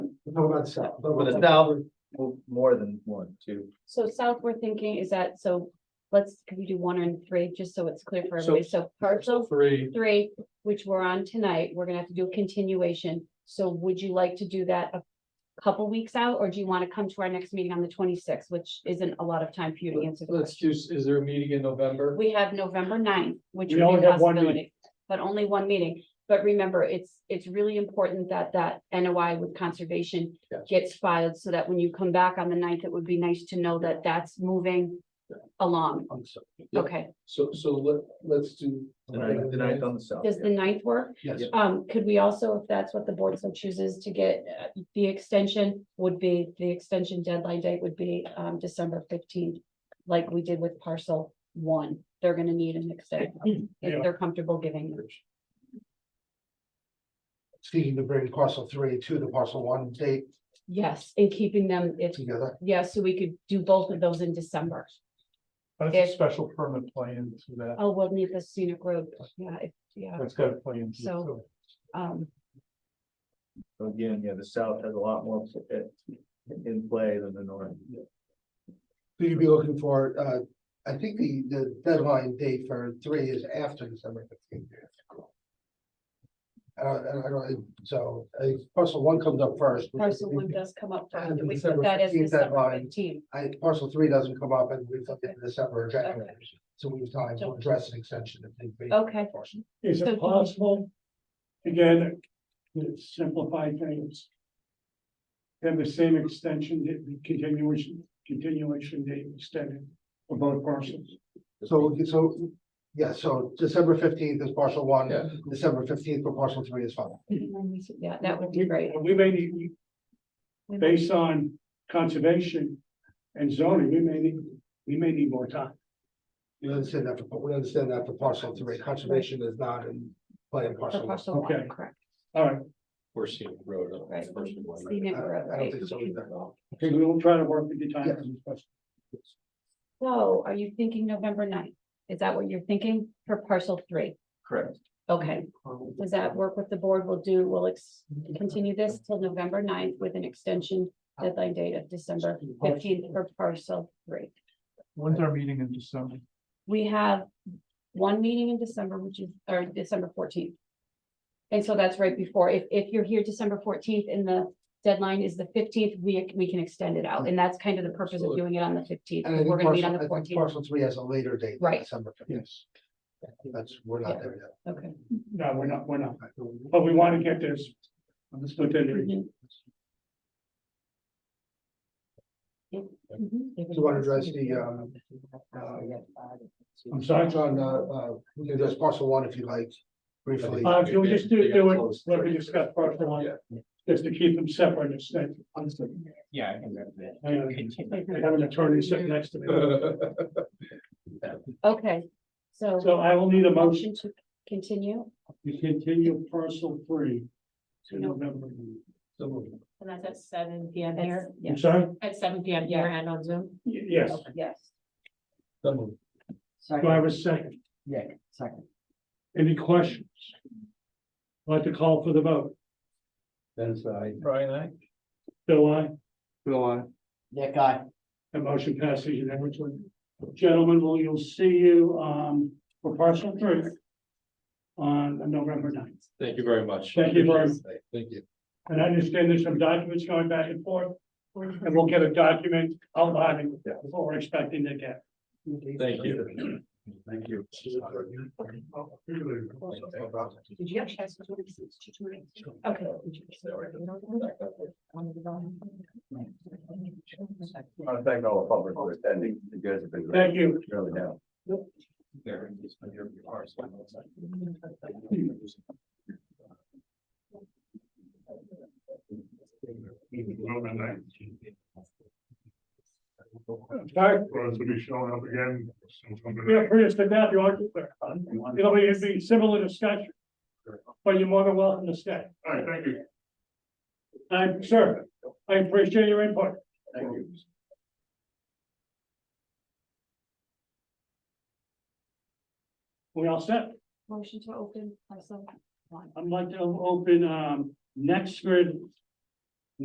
No, not south. For the south, mo- more than one, two. So south, we're thinking is that, so let's, could we do one and three, just so it's clear for So- everybody? So parcel Three, three, which we're on tonight, we're gonna have to do a continuation. So would you like to do that a couple weeks out, or do you wanna come to our next meeting on the twenty-sixth, which isn't a lot of time for you to answer the let's question? choose, is there a meeting in November? We have November 9th, which We would be only a have one possibility, but only one meeting. But remember, it's, it's really important that that NOI with conservation Yes. gets filed so that when you come back on the 9th, it would be nice to know that that's moving Yeah. along. I'm sorry. Yeah. Okay, So, so let, let's do. The ninth, the ninth on the south. does the 9th work? Yes, Um, could we also, if that's what the board so chooses to get, uh, the extension would be, the extension deadline date would be, um, December fifteenth. Like we did with parcel one, they're gonna need an extension, if Yeah. they're comfortable giving. it. Seeking to bring parcel three to the parcel one date Yes, and keeping them, if, together. yes, so we could do both of those in December. That's a If- special permit plan to that, Oh, we'll need the scenic road, yeah, if- yeah, that's got a plan. to it, So- so. um, So Again, yeah, the south has a lot more in- in play than the north. So you'd be looking for, uh, I think the, the deadline date for three is after December fifteenth. Uh, and I don't, so, uh, parcel one comes up first. which is- parcel one does come up. And first, We put December that as 15th December deadline. fifteenth, I, parcel three doesn't come up and we've looked at the December exactly. Okay. So we've time to address an extension if need be. okay. Is So do we- it possible to get, a- to simplify things? Have the same extension, date- continuation, continuation date extended for both parcels? So, so, yeah, so December fifteenth is parcel one, Yeah. December fifteenth for parcel three is fine. Yeah, that would be great. We may need, We might- Hmm. based on conservation and zoning, we may need, we may need more time. We understand that, for we understand that for parcel three, conservation is not in play in For parcel one. parcel one, Okay. correct, All right, we're seeing road. on right. first and one. Scenic road, I- I don't right. think so either. okay, we will try to work with the Yeah. time. So are you thinking November 9th? Is that what you're thinking for parcel three? Correct. Okay, does that work with the board? We'll do, we'll ex- continue this till November 9th with an extension deadline date of December fifteenth for parcel three. When's our meeting in December? We have one meeting in December, which is, or December fourteenth. And so that's right before, if, if you're here December fourteenth and the deadline is the fifteenth, we, we can extend it out. And that's kind of the purpose of Absolutely. doing it on the fifteenth. And I We're think gonna meet on parcel, the I think fourteenth. parcel three has a later date. than Right. December fifteenth, Yes, that's, we're not there yet. Okay. no, we're not, we're not, but we want to get this. Let's put that in. Mhm. Yeah. Mhm. Do you want to address the, um, I'm sorry, it's on, uh, uh, we can address parcel one if you like, briefly. Uh, can we just do, do They got it, let me discuss part one, just to keep them separate, it's that, Yeah, I think that's it. I have an attorney sitting next to me. Okay, so So I will need a motion motion to continue, to continue parcel three to No. November. And that's at seven P M That's- here, yeah. I'm sorry? at seven P M here and on Zoom. Y- Yes, yes. do I have a second? Yeah, second. Any questions? I'd Like to call for the vote, That's I. Brian, I. Bill, I, Bill, I. That guy. the motion passes unanimously. Gentlemen, well, you'll see you, um, for parcel three on November ninth. Thank you very much. Thank you, Brian. Thank you. And I understand there's some documents going back and forth, and we'll get a document outlining what we're expecting to get. Thank you. Thank you. Did you actually ask? Okay. I want to thank all the public for attending. You guys have been great. Thank you. Really now. Sorry, roads will be showing up again. sometime in the feel free to sit down, you are, it'll be, it'll be similar discussion. But you're more than welcome to stay. All right, thank you. I'm sure, I appreciate your input. Thank you. We all set? Motion to open parcel one. I'd like to open, um, next grid